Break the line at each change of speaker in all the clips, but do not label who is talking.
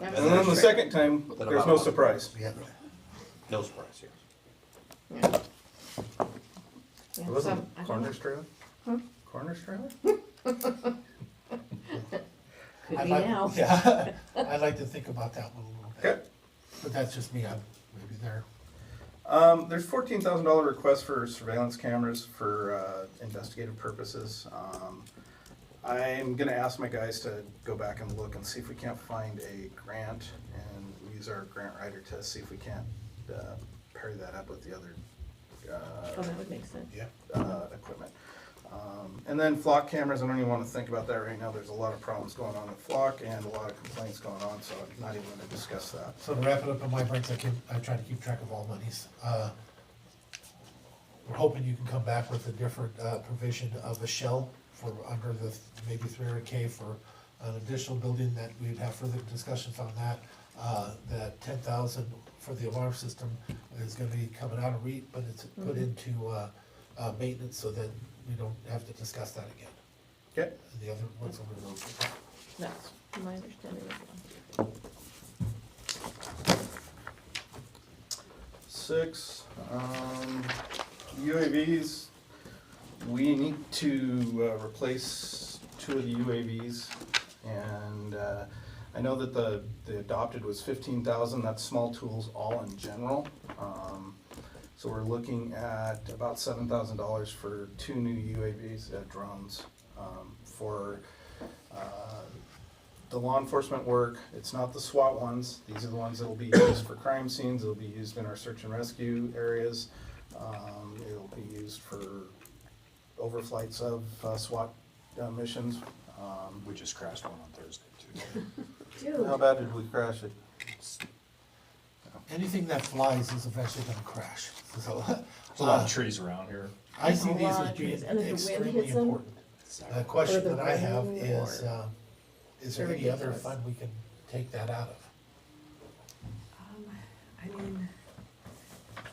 That's
And then the
right.
second time, there's no surprise.
Yeah,
No surprise here.
Yeah.
It
Yeah, so,
wasn't
I don't know.
Corners Trailer? Corners Trailer?
Could
I
be
like-
now.
Yeah, I'd like to think about that one a little
Okay.
bit, but that's just me, I'm maybe there.
Um, there's fourteen thousand dollar request for surveillance cameras for, uh, investigative purposes. Um, I'm gonna ask my guys to go back and look and see if we can't find a grant and use our grant writer to see if we can't, uh, pair that up with the other,
Oh,
uh,
that would make sense.
Yeah.
uh, equipment. Um, And then flock cameras, I don't even wanna think about that right now, there's a lot of problems going on at flock and a lot of complaints going on, so I'm not even gonna discuss that.
So to wrap it up on my breaks, I keep, I try to keep track of all monies. Uh, We're hoping you can come back with a different uh, provision of a shell for under the th- maybe three hundred K for an additional building that we'd have further discussions on that. Uh, That ten thousand for the alarm system is gonna be coming out of REIT, but it's put into uh, uh, maintenance so that we don't have to discuss that again.
Okay,
And the other ones will be moved.
That's my understanding as well.
six, um, UAVs, we need to uh, replace two of the UAVs. And uh, I know that the, the adopted was fifteen thousand, that's small tools all in general. Um, So we're looking at about seven thousand dollars for two new UAVs, uh, drones, um, for, uh, the law enforcement work. It's not the SWAT ones. These are the ones that'll be used for crime scenes. It'll be used in our search and rescue areas. Um, it'll be used for overflights of uh, SWAT uh, missions. Um,
We just crashed one on Thursday too.
How
Dude,
bad did we crash it?
Anything that flies is eventually gonna crash, so.
There's a lot
Uh.
of trees around here.
I see
A
these
lot
as
of
being
trees, and if the wind
extremely
hits 'em-
important.
It's
The
not-
question
the
that I have
rain
is,
or-
um, is there
Or
any other
ridiculous.
fund we can take that out of?
Um, I mean,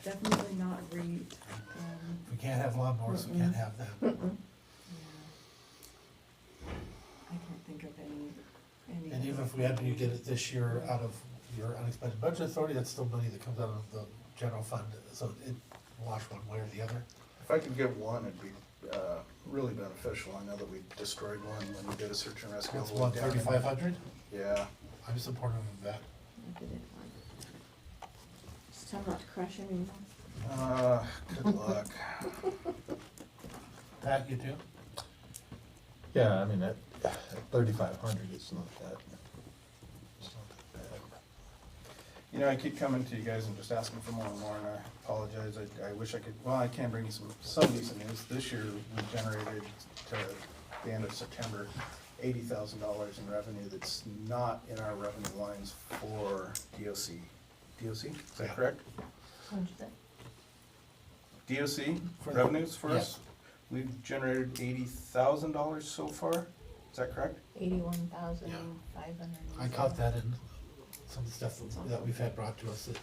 definitely not REIT, um,
If we can't have lawnmowers, we can't have them.
I can't think of any,
And
any.
even if we had to get it this year out of your unexpected budget authority, that's still money that comes out of the general fund, so it wash one way or the other.
If I could get one, it'd be uh, really beneficial. I know that we destroyed one when we did a search and rescue.
That's one thirty-five hundred,
Yeah.
I'm supportive of that.
I did it. Just tell 'em not to crush anyone.
Uh, good luck.
Pat, you do?
Yeah, I mean, at thirty-five hundred, it's not that, it's not that bad.
You know, I keep coming to you guys and just asking for more and more, and I apologize, I, I wish I could, well, I can bring you some, some decent news. This year, we generated to the end of September, eighty thousand dollars in revenue that's not in our revenue lines for DOC. DOC, is that correct?
What'd you say?
DOC
For the-
revenues for us?
Yes.
We've generated eighty thousand dollars so far, is that correct?
Eighty-one thousand, five hundred.
I caught that in some stuff that we've had brought to us that,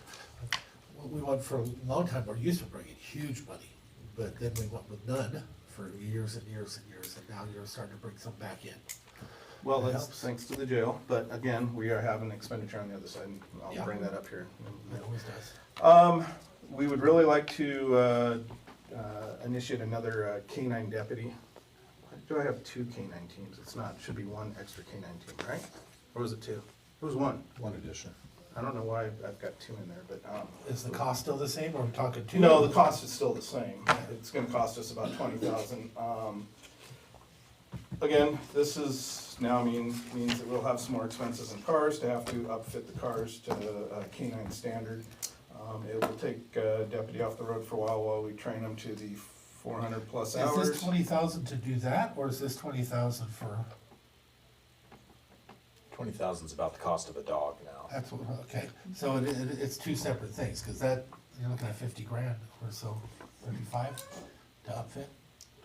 what we want for a long time, or used to bring in huge money, but then we went with none for years and years and years, and now you're starting to bring some back in.
Well,
It
that's
helps.
thanks to the jail, but again, we are having expenditure on the other side, and I'll
Yeah.
bring that up here in a
It
minute.
always does.
Um, we would really like to, uh, uh, initiate another uh, K-9 deputy. Why Do I have two K-9 teams? It's not, should be one extra K-9 team, right? Or was it two? It was one.
One addition.
I don't know why I've I've got two in there, but, um.
Is the cost still the same, or are we talking two?
No, the cost is still the same. It's gonna cost us about twenty thousand. Um, again, this is now mean, means that we'll have some more expenses in cars to have to upfit the cars to the uh, canine standard. Um, it will take uh, deputy off the road for a while while we train him to the four hundred plus
Is
hours.
this twenty thousand to do that, or is this twenty thousand for,
Twenty thousand's about the cost of a dog now.
that's what, okay, so it, it, it's two separate things, cause that, you're looking at fifty grand or so, thirty-five to upfit?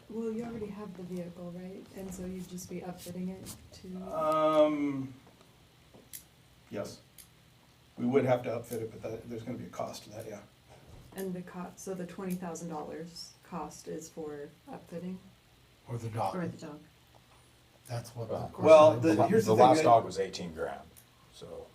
Well, you already have the vehicle, right? And so you'd just be upfitting it to,
Um, yes. We would have to upfit it, but that, there's gonna be a cost to that, yeah.
and the cost, so the twenty thousand dollars cost is for upfitting
Or the
or
dog,
the dog?
that's what.
Well,
Well,
I-
the- here's
The
thing,
last
I-
dog was eighteen grand, so